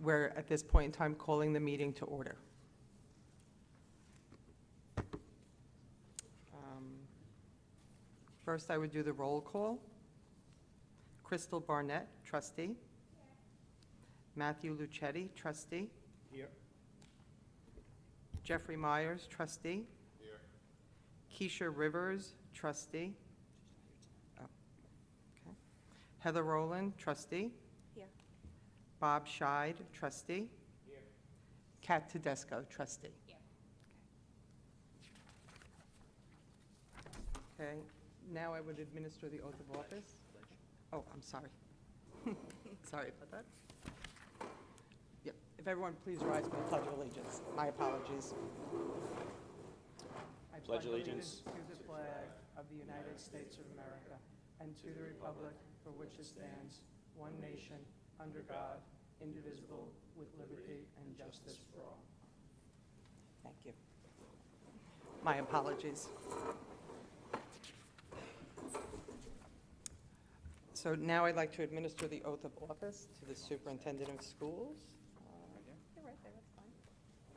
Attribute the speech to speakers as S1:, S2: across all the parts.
S1: We're, at this point in time, calling the meeting to order. Um, First, I would do the roll call. Crystal Barnett, trustee. Matthew Lucetti, trustee.
S2: Here.
S1: Jeffrey Myers, trustee.
S2: Here.
S1: Keisha Rivers, trustee. Oh, okay. Heather Rowland, trustee.
S3: Here.
S1: Bob Scheid, trustee.
S2: Here.
S1: Kat Tedesco, trustee.
S3: Here.
S1: Okay, now I would administer the oath of office. Oh, I'm sorry. Sorry about that. Yep, if everyone please rise for the pledge of allegiance. My apologies. I
S4: Pledge allegiance
S1: To the flag of the United States of America and to the republic for which it stands, one nation, under God, indivisible, with liberty and justice for all. Thank you. My apologies. So now I'd like to administer the oath of office to the superintendent of schools. Uh,
S3: They're right there, that's fine.
S1: If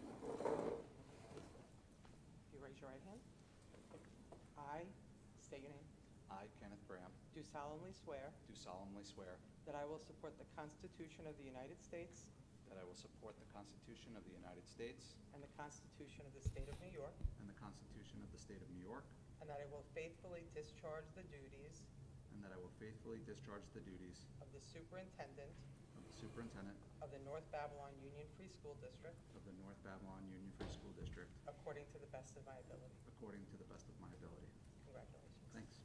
S1: you raise your right hand. I state your name.
S4: I, Kenneth Graham,
S1: Do solemnly swear
S4: do solemnly swear
S1: that I will support the Constitution of the United States
S4: that I will support the Constitution of the United States
S1: and the Constitution of the State of New York,
S4: and the Constitution of the State of New York,
S1: and that I will faithfully discharge the duties
S4: and that I will faithfully discharge the duties
S1: of the superintendent
S4: of the Superintendent
S1: of the North Babylon Union Free School District
S4: of the North Babylon Union Free School District
S1: according to the best of my ability.
S4: according to the best of my ability.
S1: Congratulations.
S4: Thanks.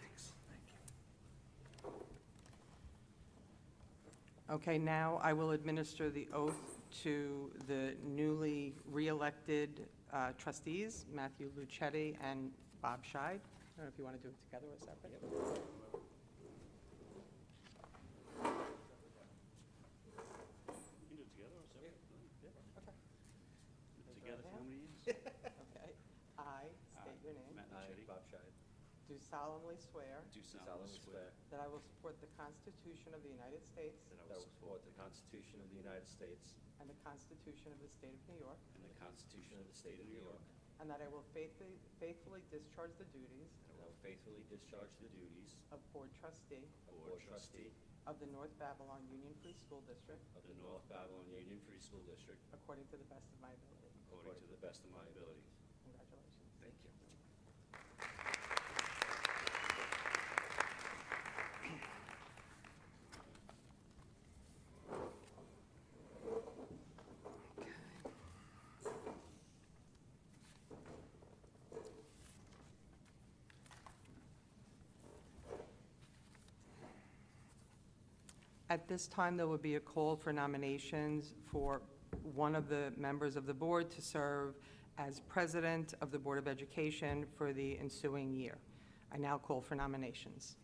S4: Thanks, thank you.
S1: Okay, now I will administer the oath to the newly re-elected uh, trustees, Matthew Lucetti and Bob Scheid. I don't know if you want to do it together or separate.
S2: You can do it together or separate. Yeah.
S1: Okay.
S2: Do it Together for how many years?
S1: Okay. I state your name.
S2: Matt
S5: I,
S2: Lucetti,
S5: Bob Scheid,
S1: Do solemnly swear
S2: do
S5: do
S2: solemnly
S5: solemnly
S2: swear
S5: swear
S1: that I will support the Constitution of the United States
S2: that I
S5: that I
S2: will
S5: will
S2: support
S5: support the Constitution of the United States
S1: and the Constitution of the State of New York,
S5: and the Constitution of the State of New York,
S1: and
S5: and
S1: that I will faithfully faithfully discharge the duties
S5: I will faithfully discharge the duties
S1: of Board Trustee
S5: of Board Trustee
S1: of the North Babylon Union Free School District
S5: of the North Babylon Union Free School District
S1: according to the best of my ability.
S5: according to the best of my ability.
S1: Congratulations.
S5: Thank you.
S1: At this time, there will be a call for nominations for one of the members of the board to serve as president of the Board of Education for the ensuing year. I now call for nominations.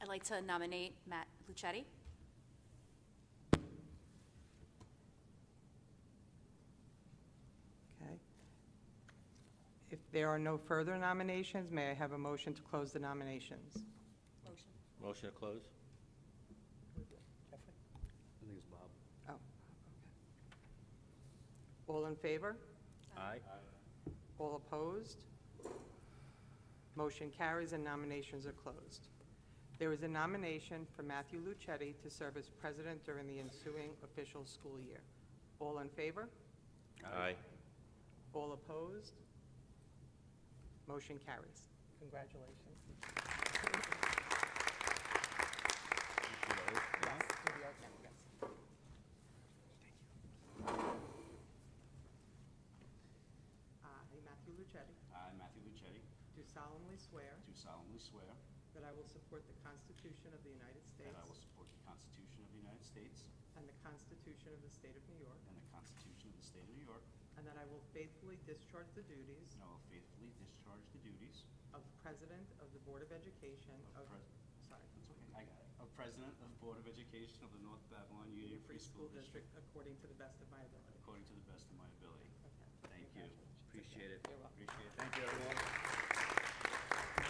S6: I'd like to nominate Matt Lucetti.
S1: Okay? If there are no further nominations, may I have a motion to close the nominations?
S6: Motion.
S7: Motion to close?
S1: Jeffrey?
S2: I think it's Bob.
S1: Oh, okay. All in favor?
S7: Aye.
S1: All opposed? Motion carries and nominations are closed. There is a nomination for Matthew Lucetti to serve as president during the ensuing official school year. All in favor?
S7: Aye.
S1: All opposed? Motion carries. Congratulations. Do the oath now, yes. Uh, I, Matthew Lucetti,
S4: I, Matthew Lucetti,
S1: do solemnly swear
S4: do solemnly swear
S1: that I will support the Constitution of the United States
S4: that I will support the Constitution of the United States
S1: and the Constitution of the State of New York,
S4: and the Constitution of the State of New York,
S1: and that I will faithfully discharge the duties
S4: and I will faithfully discharge the duties
S1: of President of the Board of Education
S4: Of
S1: of,
S4: pres-
S1: sorry,
S4: That's okay, I got it. A president of the Board of Education of the North Babylon Union
S1: Free School District according to the best of my ability.
S4: according to the best of my ability.
S1: Okay.
S4: Thank you.
S1: Congratulations.
S4: Appreciate it.
S1: You're welcome.
S4: Appreciate it. Thank you, everyone.